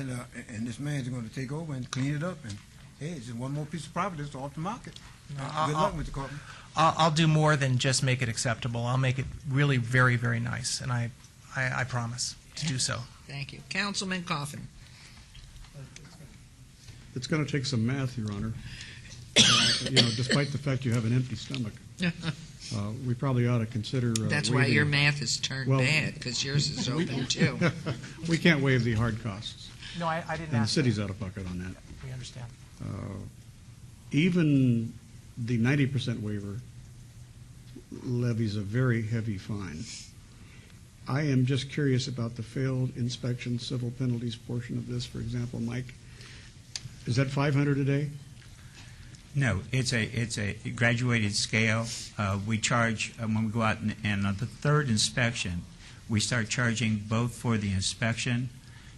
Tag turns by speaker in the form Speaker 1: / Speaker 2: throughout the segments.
Speaker 1: uh, a- and this man's gonna take over and clean it up, and hey, it's just one more piece of property that's off the market.
Speaker 2: I-
Speaker 1: Good
Speaker 2: I-
Speaker 1: luck, Mr. Carpenter.
Speaker 2: I'll, I'll do more than just make it acceptable. I'll make it really very, very nice, and I, I, I promise to do so.
Speaker 3: Thank you. Councilman Coffin.
Speaker 4: It's going to take some math, Your Honor. Uh, You know, despite the fact you have an empty stomach, uh, we probably ought to consider. uh,
Speaker 3: That's why
Speaker 4: waiving-
Speaker 3: your math has turned
Speaker 4: Well-
Speaker 3: bad, because yours is open too.
Speaker 4: We can't waive the hard costs,
Speaker 2: No, I, I didn't
Speaker 4: and the
Speaker 2: ask.
Speaker 4: city's out of pocket on that.
Speaker 2: We understand.
Speaker 4: Uh, Even the ninety percent waiver levies a very heavy fine. I am just curious about the failed inspection civil penalties portion of this, for example, Mike. Is that five hundred a day?
Speaker 5: No, it's a, it's a graduated scale. Uh, We charge, uh, when we go out and- and on the third inspection, we start charging both for the inspection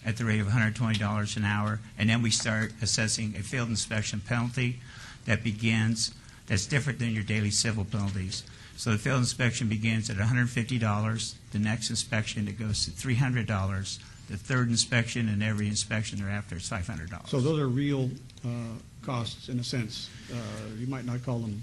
Speaker 5: at the rate of $120 an hour, and then we start assessing a field inspection penalty that begins, that's different than your daily civil penalties. So the field inspection begins at $150, the next inspection, it goes to $300, the third inspection and every inspection thereafter is $500.
Speaker 4: So those are real uh, costs, in a sense. Uh, You might not call them.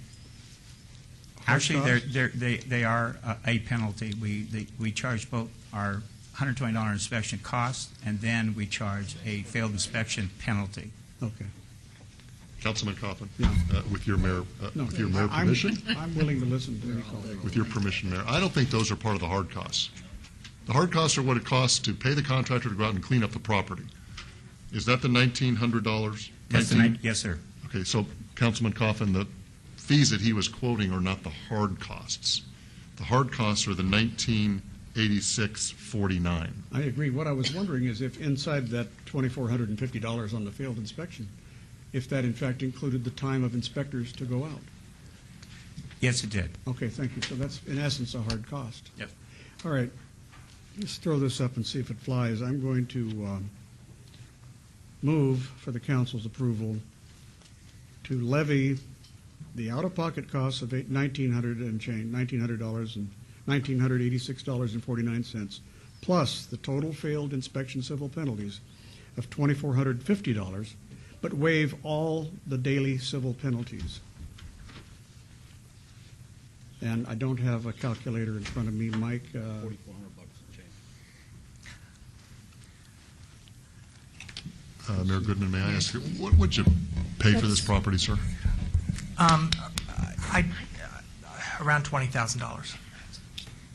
Speaker 4: hard
Speaker 5: Actually, they're,
Speaker 4: costs.
Speaker 5: they're, they, they are uh, a penalty. We, they, we charge both our $120 inspection cost, and then we charge a failed inspection penalty.
Speaker 4: Okay.
Speaker 6: Councilman Coffin,
Speaker 4: Yeah.
Speaker 6: uh, with your mayor, uh,
Speaker 4: No,
Speaker 6: with your mayor
Speaker 4: I- I'm-
Speaker 6: permission,
Speaker 4: I'm willing to listen to any call.
Speaker 6: with your permission, Mayor, I don't think those are part of the hard costs. The hard costs are what it costs to pay the contractor to go out and clean up the property. Is that the nineteen hundred dollars?
Speaker 5: That's the nine- Yes, sir.
Speaker 6: Okay, so Councilman Coffin, the fees that he was quoting are not the hard costs. The hard costs are the nineteen eighty-six forty-nine.
Speaker 4: I agree. What I was wondering is if inside that $2,450 on the failed inspection, if that in fact included the time of inspectors to go out.
Speaker 5: Yes, it did.
Speaker 4: Okay, thank you. So that's in essence a hard cost.
Speaker 5: Yep.
Speaker 4: All right, let's throw this up and see if it flies. I'm going to um, move for the council's approval to levy the out-of-pocket costs of eight- $1,900 and change, $1,900 and $1,986.49, plus the total failed inspection civil penalties of $2,450, but waive all the daily civil penalties. And I don't have a calculator in front of me, Mike. uh,
Speaker 6: Uh, Mayor Goodman, may I ask, you, what would you pay for this property, sir?
Speaker 2: Um, I, around twenty thousand dollars.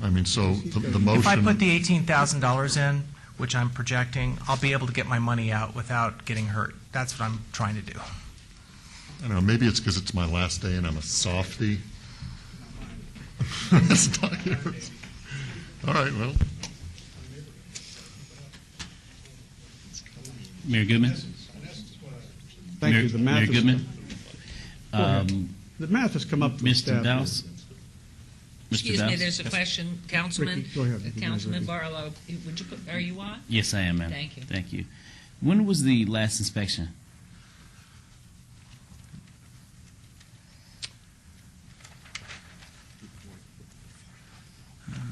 Speaker 6: I mean, so the the motion.
Speaker 2: If I put the eighteen thousand dollars in, which I'm projecting, I'll be able to get my money out without getting hurt. That's what I'm trying to do.
Speaker 6: I don't know. Maybe it's because it's my last day and I'm a softie. It's not yours. All right. Well,
Speaker 7: Mayor Goodman?
Speaker 4: Thank
Speaker 7: Mayor-
Speaker 4: you. The math
Speaker 7: Mayor
Speaker 4: is-
Speaker 7: Goodman?
Speaker 4: Go ahead.
Speaker 7: Um,
Speaker 4: The math has come up from staff.
Speaker 7: Mr. Dowse? Mr.
Speaker 3: Excuse me,
Speaker 7: Dowse?
Speaker 3: there's a question, Councilman,
Speaker 4: Ricky, go ahead. Ricky,
Speaker 3: Councilman
Speaker 4: Ricky.
Speaker 3: Barlow, would you, put- are you on?
Speaker 7: Yes, I am, ma'am.
Speaker 3: Thank you.
Speaker 7: Thank you. When was the last inspection?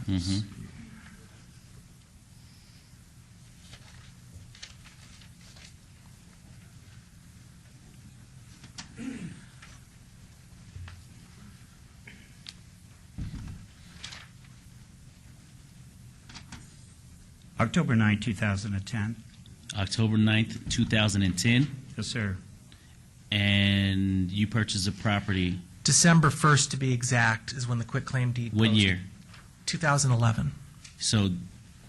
Speaker 7: Mhm.
Speaker 5: October 9, 2010.
Speaker 7: October 9th, 2010,
Speaker 5: Yes, sir.
Speaker 7: and you purchased a property,
Speaker 2: December first, to be exact, is when the quitclaim deed.
Speaker 7: what year?
Speaker 2: Two thousand eleven.
Speaker 7: So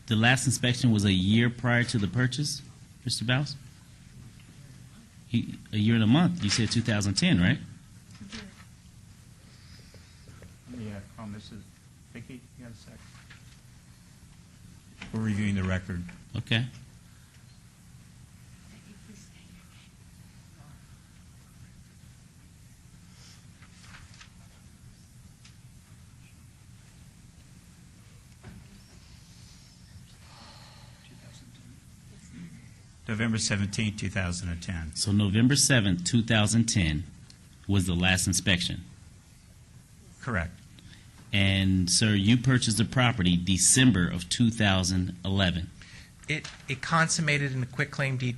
Speaker 7: the last inspection was a year prior to the purchase, Mr. Bouse? He, a year and a month. You said 2010, right?
Speaker 5: Yeah, oh, Mrs. Vicki, you got a second? We're reviewing the record.
Speaker 7: Okay.
Speaker 5: November 17, 2010.
Speaker 7: So November 7th, 2010 was the last inspection.
Speaker 5: Correct.
Speaker 7: And sir, you purchased the property December of 2011.
Speaker 2: It, it consummated in the quitclaim deed